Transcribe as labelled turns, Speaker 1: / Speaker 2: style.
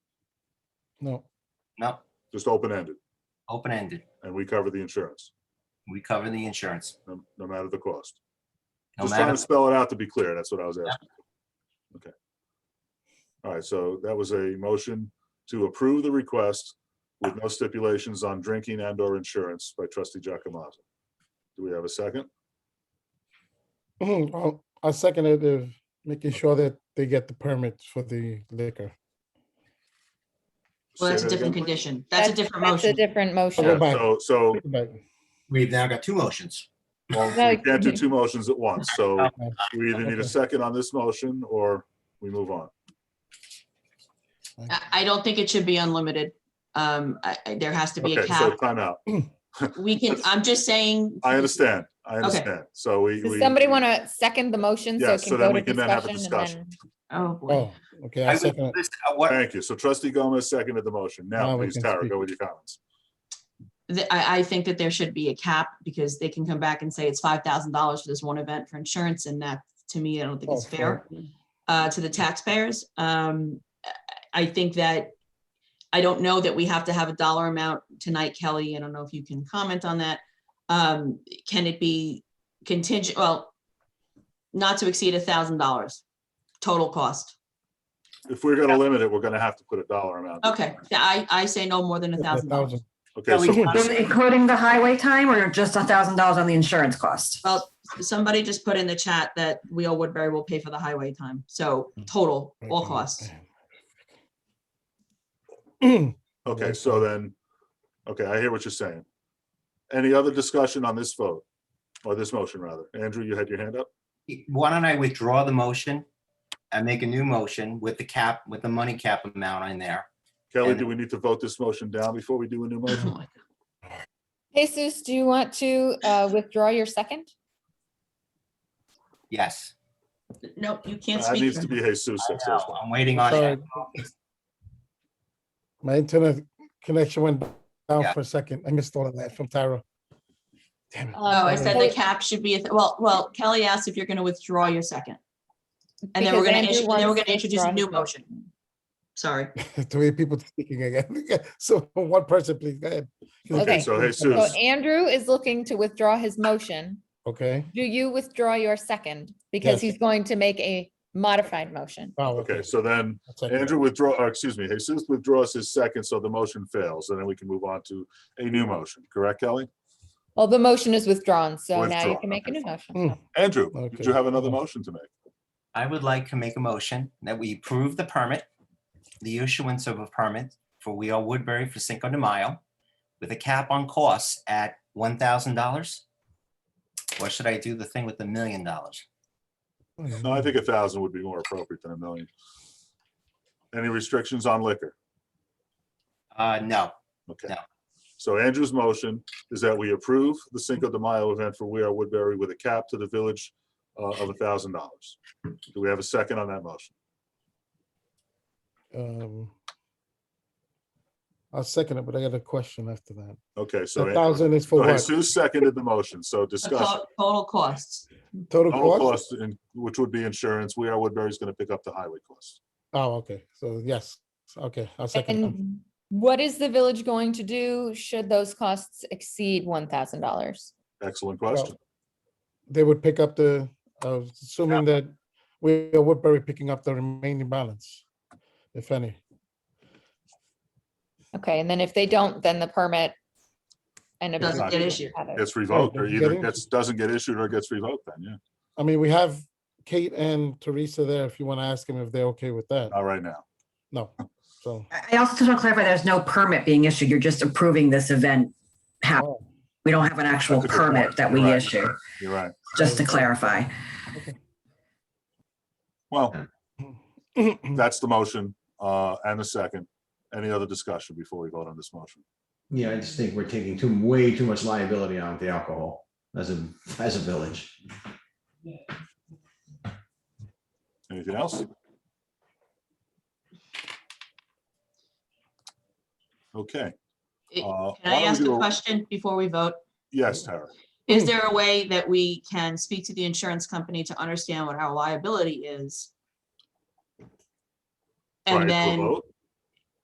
Speaker 1: No,
Speaker 2: No,
Speaker 3: just open-ended,
Speaker 2: open-ended.
Speaker 3: and we cover the insurance,
Speaker 2: We cover the insurance.
Speaker 3: no no matter the cost.
Speaker 2: No
Speaker 3: Just trying
Speaker 2: matter,
Speaker 3: to spell it out to be clear, that's what I was
Speaker 2: Yeah.
Speaker 3: asking. Okay. All right, so that was a motion to approve the request with no stipulations on drinking and/or insurance by trustee Jacomaza. Do we have a second?
Speaker 1: Mm-hmm. well, I second it, uh, making sure that they get the permit for the liquor.
Speaker 4: Well, that's
Speaker 3: Say
Speaker 4: a
Speaker 3: that again,
Speaker 4: different
Speaker 3: please.
Speaker 4: condition. That's a different
Speaker 5: That's a
Speaker 4: motion.
Speaker 5: different
Speaker 3: Yeah,
Speaker 5: motion.
Speaker 1: Back.
Speaker 3: So, so
Speaker 1: Right.
Speaker 2: we've now got two motions.
Speaker 3: well,
Speaker 5: No,
Speaker 3: we can't do
Speaker 5: you-
Speaker 3: two motions at once, so we either need a
Speaker 1: Okay.
Speaker 3: second on this motion or we move on.
Speaker 4: I, I don't think it should be unlimited. Um, I, I- there has to be a
Speaker 3: Okay, so
Speaker 4: cap.
Speaker 3: timeout.
Speaker 4: We can, I'm just saying.
Speaker 3: I understand, I understand, so we.
Speaker 5: Does
Speaker 3: we-
Speaker 5: somebody want to second the motion so
Speaker 3: Yes,
Speaker 5: it
Speaker 3: so
Speaker 5: can
Speaker 3: then
Speaker 5: go
Speaker 3: we
Speaker 5: to
Speaker 3: can then have a
Speaker 5: discussion? and
Speaker 3: discussion.
Speaker 5: then-
Speaker 4: Oh, boy.
Speaker 1: Oh, okay,
Speaker 2: I
Speaker 1: I
Speaker 2: would-
Speaker 1: second it.
Speaker 2: this- uh, What,
Speaker 3: Thank you. So trustee Gomez seconded the motion. Now,
Speaker 1: Now we
Speaker 3: please,
Speaker 1: can
Speaker 3: Tara,
Speaker 1: speak.
Speaker 3: go with your comments.
Speaker 4: The- I, I think that there should be a cap because they can come back and say it's five thousand dollars for this one event for insurance and that, to me, I don't think
Speaker 1: Oh,
Speaker 4: is fair. uh, to the taxpayers. Um, I- I think that, I don't know that we have to have a dollar amount tonight, Kelly. I don't know if you can comment on that. Um, can it be contingent, well, not to exceed a thousand dollars total cost?
Speaker 3: If we're going to limit it, we're going to have to put a dollar amount.
Speaker 4: Okay, yeah, I, I say no more than a thousand dollars.
Speaker 3: Okay, so
Speaker 6: Um, Including the highway time or just a thousand dollars on the insurance cost?
Speaker 4: Well, somebody just put in the chat that we all Woodbury will pay for the highway time. So total, all costs.
Speaker 3: okay, so then, okay, I hear what you're saying. Any other discussion on this vote? Or this motion, rather? Andrew, you had your hand up?
Speaker 2: why don't I withdraw the motion? and make a new motion with the cap, with the money cap amount in there.
Speaker 3: Kelly,
Speaker 2: And-
Speaker 3: do we need to vote this motion down before we do a new motion?
Speaker 5: Jesus, do you want to uh, withdraw your second?
Speaker 2: Yes.
Speaker 4: No, you can't
Speaker 3: That
Speaker 4: speak.
Speaker 3: needs to be Jesus. that says
Speaker 2: No, I'm waiting on
Speaker 1: Sorry.
Speaker 2: it.
Speaker 1: My internet connection went down
Speaker 2: Yeah.
Speaker 1: for a second. I missed all of that from Tyra. Damn it.
Speaker 4: Oh, I
Speaker 5: Um,
Speaker 1: Okay.
Speaker 4: said the cap should be, a th- well, well, Kelly asked if you're gonna withdraw your second. And then we're
Speaker 5: Because
Speaker 4: gonna,
Speaker 5: Andrew
Speaker 4: issue- then we're
Speaker 5: wants
Speaker 4: gonna
Speaker 5: to
Speaker 4: introduce a
Speaker 5: withdraw
Speaker 4: new
Speaker 5: his
Speaker 4: motion. Sorry.
Speaker 1: Three people speaking again. So one person, please, go ahead.
Speaker 5: Okay,
Speaker 3: so
Speaker 5: So
Speaker 3: Jesus.
Speaker 5: Andrew is looking to withdraw his motion.
Speaker 1: Okay.
Speaker 5: Do you withdraw your second? Because
Speaker 1: Yes.
Speaker 5: he's going to make a modified motion.
Speaker 1: Oh,
Speaker 3: Okay, so then
Speaker 1: I'll second that.
Speaker 3: Andrew withdraw, or excuse me, Jesus withdraws his second, so the motion fails, and then we can move on to a new motion, correct, Kelly?
Speaker 5: Well, the motion is withdrawn, so now you
Speaker 3: Withdrawn,
Speaker 5: can make a
Speaker 3: okay,
Speaker 5: new
Speaker 3: fine.
Speaker 5: motion.
Speaker 1: Mm,
Speaker 3: Andrew, did you
Speaker 1: Okay.
Speaker 3: have another motion to make?
Speaker 2: I would like to make a motion that we approve the permit, the issuance of a permit for We Are Woodbury for Cinco de Mayo with a cap on costs at one thousand dollars? Or should I do the thing with the million dollars?
Speaker 3: No, I think a thousand would be more appropriate than a million. Any restrictions on liquor?
Speaker 2: Uh, no,
Speaker 3: Okay.
Speaker 2: No.
Speaker 3: So Andrew's motion is that we approve the Cinco de Mayo event for We Are Woodbury with a cap to the village uh, of a thousand dollars. Do we have a second on that motion?
Speaker 1: Um, I'll second it, but I got a question after that.
Speaker 3: Okay, so
Speaker 1: A
Speaker 3: Andrew-
Speaker 1: thousand is for
Speaker 3: so
Speaker 1: what?
Speaker 3: Jesus seconded the motion, so
Speaker 4: The
Speaker 3: discuss.
Speaker 4: to- Total costs.
Speaker 1: Total
Speaker 3: Total
Speaker 1: cost?
Speaker 3: cost, in- which would be insurance, We Are Woodbury is going to pick up the highway costs.
Speaker 1: Oh, okay. So yes, okay, I'll second. Um, that.
Speaker 5: And what is the village going to do should those costs exceed one thousand dollars?
Speaker 3: Excellent question.
Speaker 1: They would pick up the, uh, assuming that we are Woodbury picking up the remaining balance, if any.
Speaker 5: Okay, and then if they don't, then the permit and.
Speaker 4: Doesn't
Speaker 5: everything
Speaker 4: get
Speaker 5: is
Speaker 4: issued.
Speaker 5: added.
Speaker 3: Gets revoked or
Speaker 1: doesn't
Speaker 3: either
Speaker 1: oh, get in-
Speaker 3: gets, doesn't get issued or gets revoked then, yeah.
Speaker 1: I mean, we have Kate and Teresa there if you want to ask them if they're okay with that.
Speaker 3: Not right now.
Speaker 1: No, so.
Speaker 6: I I also just want to clarify, there's no permit being issued. You're just approving this event happen.
Speaker 1: oh,
Speaker 6: We don't have an actual
Speaker 3: That's a good point.
Speaker 6: permit that we
Speaker 3: You're right.
Speaker 6: issue,
Speaker 3: You're right.
Speaker 6: just to clarify.
Speaker 3: Well, That's the motion uh, and the second. Any other discussion before we vote on this motion?
Speaker 7: Yeah, I just think we're taking too, way too much liability on the alcohol as a, as a village.
Speaker 3: Anything else? Okay, Uh,
Speaker 4: It- Can
Speaker 3: why
Speaker 4: I
Speaker 3: don't we
Speaker 4: ask
Speaker 3: do
Speaker 4: a
Speaker 3: a-
Speaker 4: question before we vote?
Speaker 3: yes, Tara.
Speaker 5: Hmm.
Speaker 4: Is there a way that we can speak to the insurance company to understand what our liability is?
Speaker 3: Prior
Speaker 4: And
Speaker 3: to a
Speaker 4: then,
Speaker 3: vote?